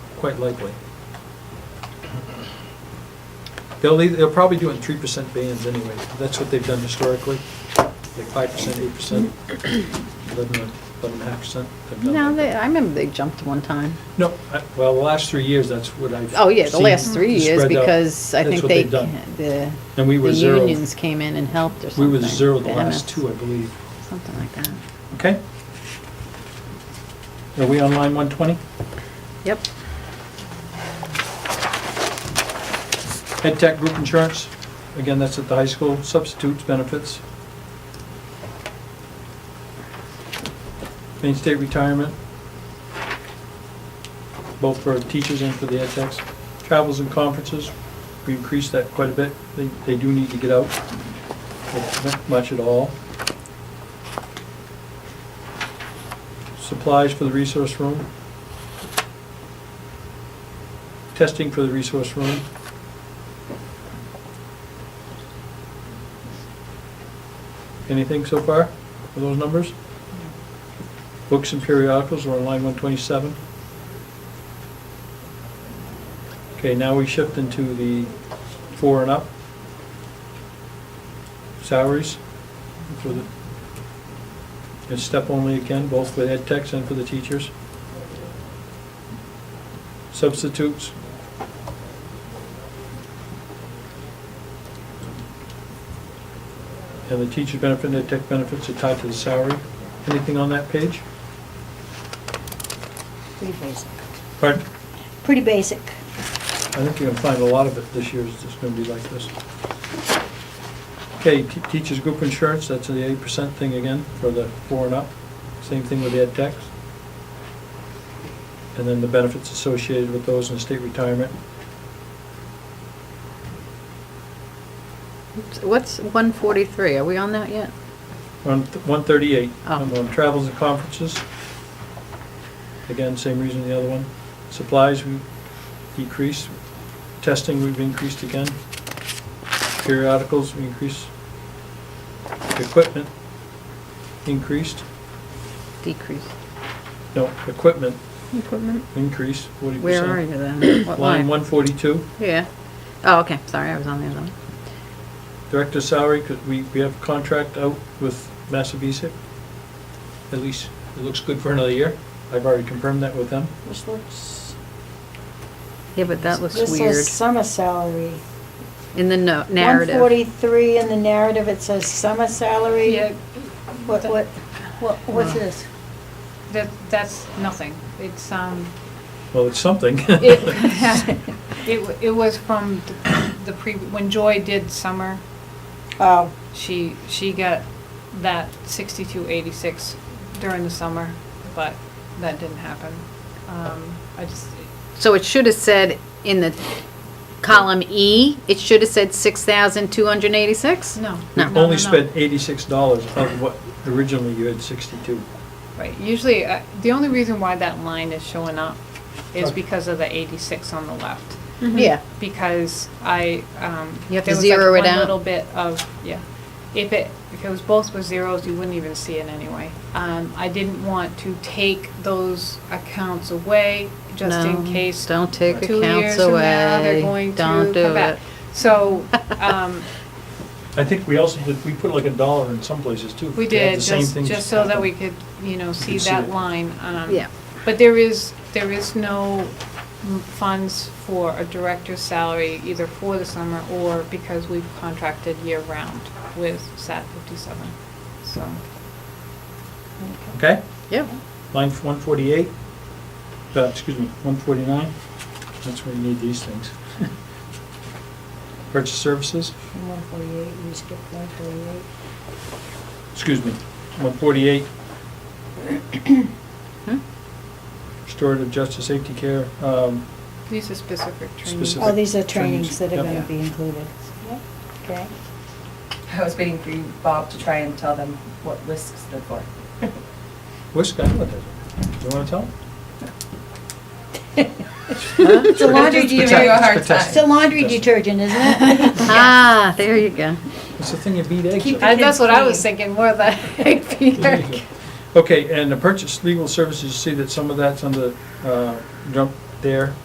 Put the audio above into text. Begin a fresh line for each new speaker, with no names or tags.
quite likely. They'll, leave- they'll probably do it in three percent bands anyway, that's what they've done historically, like five percent, eight percent, eleven, eleven and a half percent. They've done
No,
like
they,
that.
I remember they jumped one time.
No, I- well, the last three years, that's what I've.
Oh, yeah, the
seen
last three years,
spread out.
because I
That's
think
what
they,
they've done.
the,
And we were
the
zero,
unions came in and helped or
we
something.
were zero the
The
last
MS,
two, I believe,
Something like that.
okay? Are we on line one twenty?
Yep.
Ed Tech Group Insurance, again, that's at the high school, substitutes benefits. Main State Retirement, both for teachers and for the ed techs. Travels and conferences, we increased that quite a bit, they, they do need to get out, not much at all. Supplies for the resource room. Testing for the resource room. Anything so far for those numbers? Books and periodicals are on line 127. Okay, now we shift into the four and up. Salaries for the, and step only again, both for ed techs and for the teachers. Substitutes, and the teacher benefit and ed tech benefits are tied to the salary. Anything on that page?
Pretty basic.
Pardon?
Pretty basic.
I think you're gonna find a lot of it this year is just gonna be like this. Okay, te- teachers group insurance, that's the eight percent thing again for the four and up. Same thing with the ed techs. And then the benefits associated with those in state retirement.
What's one forty-three? Are we on that yet?
On one thirty-eight,
Oh.
I'm on travels and conferences. Again, same reason the other one. Supplies, we decreased. Testing, we've increased again. Periodicals, we increased. Equipment, increased.
Decrease.
No, equipment,
Equipment?
increased forty percent.
Where are you then? What
Line
line?
one forty-two,
Yeah. Oh, okay, sorry, I was on the other one.
director's salary, 'cause we, we have contract out with Massabesic. At least, it looks good for another year. I've already confirmed that with them.
This looks.
Yeah, but that looks
This
weird.
says summer salary.
In the no- narrative.
One forty-three in the narrative, it says summer salary.
Yeah,
What, what, what, what's
No.
this?
that, that's nothing. It's, um,
Well, it's something.
it, it, wa- it was from the- the pre, when Joy did summer,
Oh,
she, she got that sixty-two eighty-six during the summer, but that didn't happen. Um, I just,
So it should have said in the column E, it should have said six thousand two hundred eighty-six?
no.
We
no, no, no.
only spent eighty-six dollars of what originally you had sixty-two.
Right, usually, uh, the only reason why that line is showing up is
Okay.
because of the eighty-six on the left.
Yeah,
because I, um.
You have to
there was, like,
zero it
one
out.
Little bit of, yeah. If it, if it was both with zeros, you wouldn't even see it anyway. Um, I didn't want to take those accounts away, just in
No,
case.
don't take
two
accounts
years from now
away.
They're going to
Don't
come
do
back.
it.
So, um,
I think we also, did- we put like a dollar in some places too.
we
to have
did,
the same
just,
things
just so that
happen.
we could, you know, see
could see it.
that line. um,
yeah.
But there is, there is no m- funds for a director's salary either for the summer or because we've contracted year-round with SAT 57, so.
Okay,
Yep.
line one forty-eight, uh, excuse me, one forty-nine, that's where you need these things. Purchase services,
one forty-eight, we skipped one forty-eight.
excuse me, one forty-eight.
Hmm?
Restorative justice, safety care, um,
These are specific trainings.
Specific.
Oh, these are trainings
Trainings,
that are
yep.
gonna be included. Okay.
I was waiting for you, Bob, to try and tell them what WISC stood for.
what's that, what is it? Do you wanna tell?
It's a laundry
Give you a
detergent,
hard
it's a
time.
laundry detergent, isn't it?
Ah, there you go.
It's the thing you beat eggs
Keep
with.
it-
I- That's what I was
Train.
thinking, more the egg feeder.
Okay, and the purchase legal services, you see that some of that's on the uh, jump there.